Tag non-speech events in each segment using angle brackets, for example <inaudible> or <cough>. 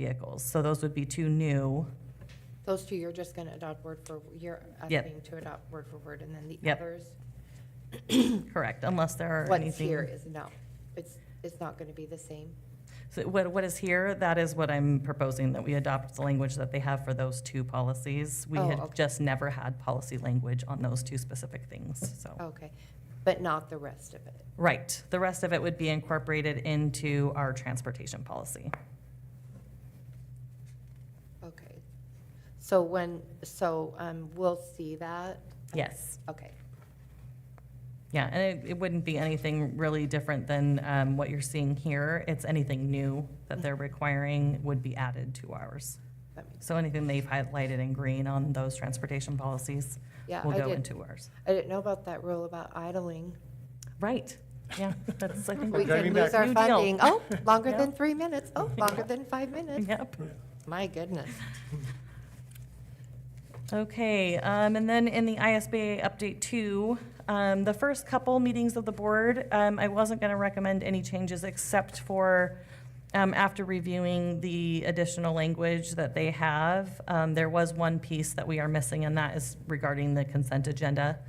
vehicles. So those would be two new, Those two, you're just gonna adopt word for, you're Yep. asking to adopt word for word, and then the Yep. others, correct, unless there are what's anything. here is no, it's, it's not gonna be the same. So what, what is here, that is what I'm proposing, that we adopt the language that they have for those two policies. We Oh, had okay. just never had policy language on those two specific things, so. Okay, but not the rest of it. Right, the rest of it would be incorporated into our transportation policy. Okay. So when, so, um, we'll see that? Yes, Okay, yeah, and it, it wouldn't be anything really different than, um, what you're seeing here. It's anything new that they're requiring would be added to ours. that makes, So anything they've highlighted in green on those transportation policies yeah, will I go didn't, into ours. I didn't know about that rule about idling. Right, yeah, that's, I think. We what- could lose back. our New deal. funding. <laughs> Oh, longer Yeah. than three minutes. <laughs> Oh, longer than five minutes. Yep. My goodness. Okay, um, and then in the ISBA update two, um, the first couple meetings of the board, um, I wasn't gonna recommend any changes except for, um, after reviewing the additional language that they have, um, there was one piece that we are missing, and that is regarding the consent agenda.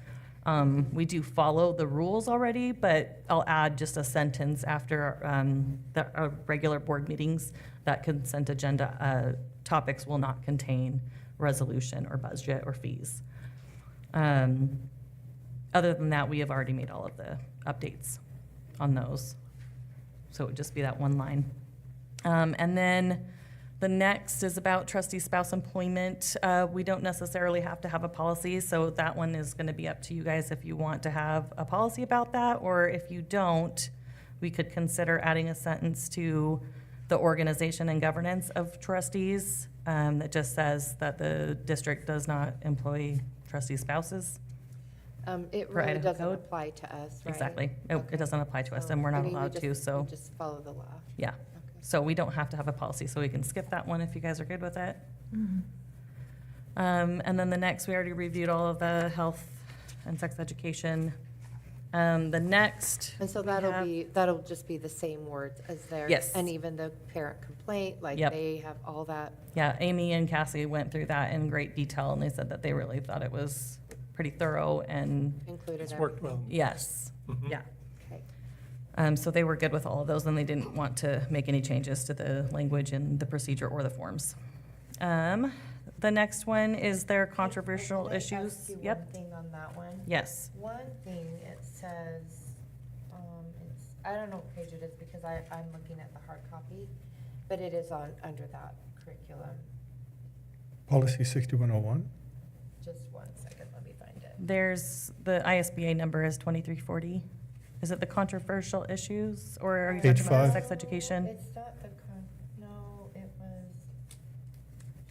Um, we do follow the rules already, but I'll add just a sentence after, um, the, uh, regular board meetings, that consent agenda, uh, topics will not contain resolution or budget or fees. Um, Other than that, we have already made all of the updates on those. So it would just be that one line. Um, And then the next is about trustee spouse employment. Uh, We don't necessarily have to have a policy, so that one is going to be up to you guys if you want to have a policy about that, or if you don't, we could consider adding a sentence to the organization and governance of trustees um, that just says that the district does not employ trustee spouses. Um, it For really Idaho doesn't code? apply to us, right? Exactly. It- Okay. It doesn't apply to us, So, and we're I not mean, we allowed just- to, we so, Just follow the law. yeah. Okay. So we don't have to have a policy, so we can skip that one if you guys are good with it. Um, and then the next, we already reviewed all of the health and sex education. Um, the next, And so we that'll have- be, that'll just be the same words as there. Yes. And even the parent complaint, like Yep. they have all that. yeah, Amy and Cassie went through that in great detail, and they said that they really thought it was pretty thorough and, included. It's every- worked well. yes, yeah. Okay. Um, so they were good with all of those, and they didn't want to make any changes to the language in the procedure or the forms. Um, the next one is their controversial Can I ask issues. you one Yep, thing on that one? yes. One thing, it says, um, it's, I don't know what page it is because I, I'm looking at the hard copy, but it is on, under that curriculum. Policy 6101? Just one second, let me find it. There's, the ISBA number is 2340. Is it the controversial issues, or are you Page talking about five. sex education? It's not the con, no, it was,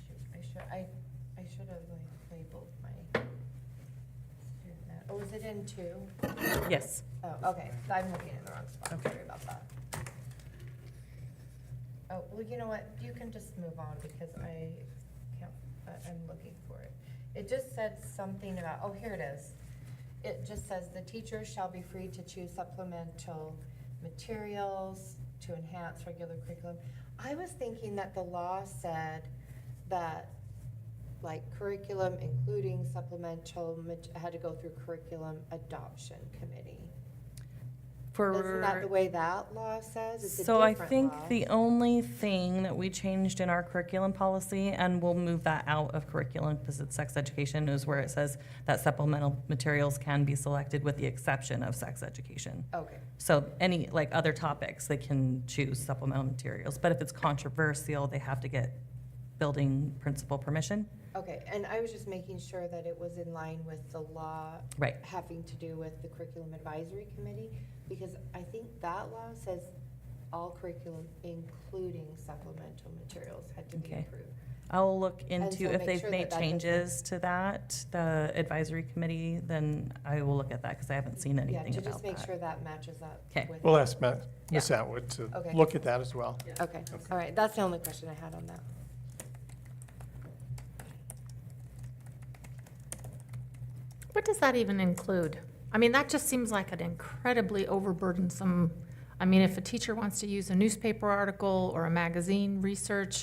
shoot, I should, I, I should have like labeled my student. that- Oh, is it in two? Yes. Oh, okay, so I'm looking in the wrong spot, sorry about that. Oh, well, you know what, you can just move on because I can't, I- I'm looking for it. It just said something about, oh, here it is. It just says the teacher shall be free to choose supplemental materials to enhance regular curriculum. I was thinking that the law said that, like, curriculum including supplemental mat- had to go through curriculum adoption committee. Isn't that the For, way that law says? It's a so I different think law. the only thing that we changed in our curriculum policy, and we'll move that out of curriculum because it's sex education, is where it says that supplemental materials can be selected with the exception of sex education. Okay, So any, like, other topics, they can choose supplemental materials. But if it's controversial, they have to get building principal permission. okay, and I was just making sure that it was in line with the law Right. having to do with the curriculum advisory committee, because I think that law says all curriculum, including supplemental materials, had to be Okay. approved. I'll look so into if make they've sure made that that doesn't- changes to that, the advisory committee, then I will look at that because I haven't seen Yeah, anything to about just make that. sure that matches up. 'Kay. with- We'll ask Matt, Ms. Yeah. Atwood to Okay. look at that as well. Okay, all right, that's the only question I had on that. What does that even include? I mean, that just seems like an incredibly overburdensome, I mean, if a teacher wants to use a newspaper article or a magazine research,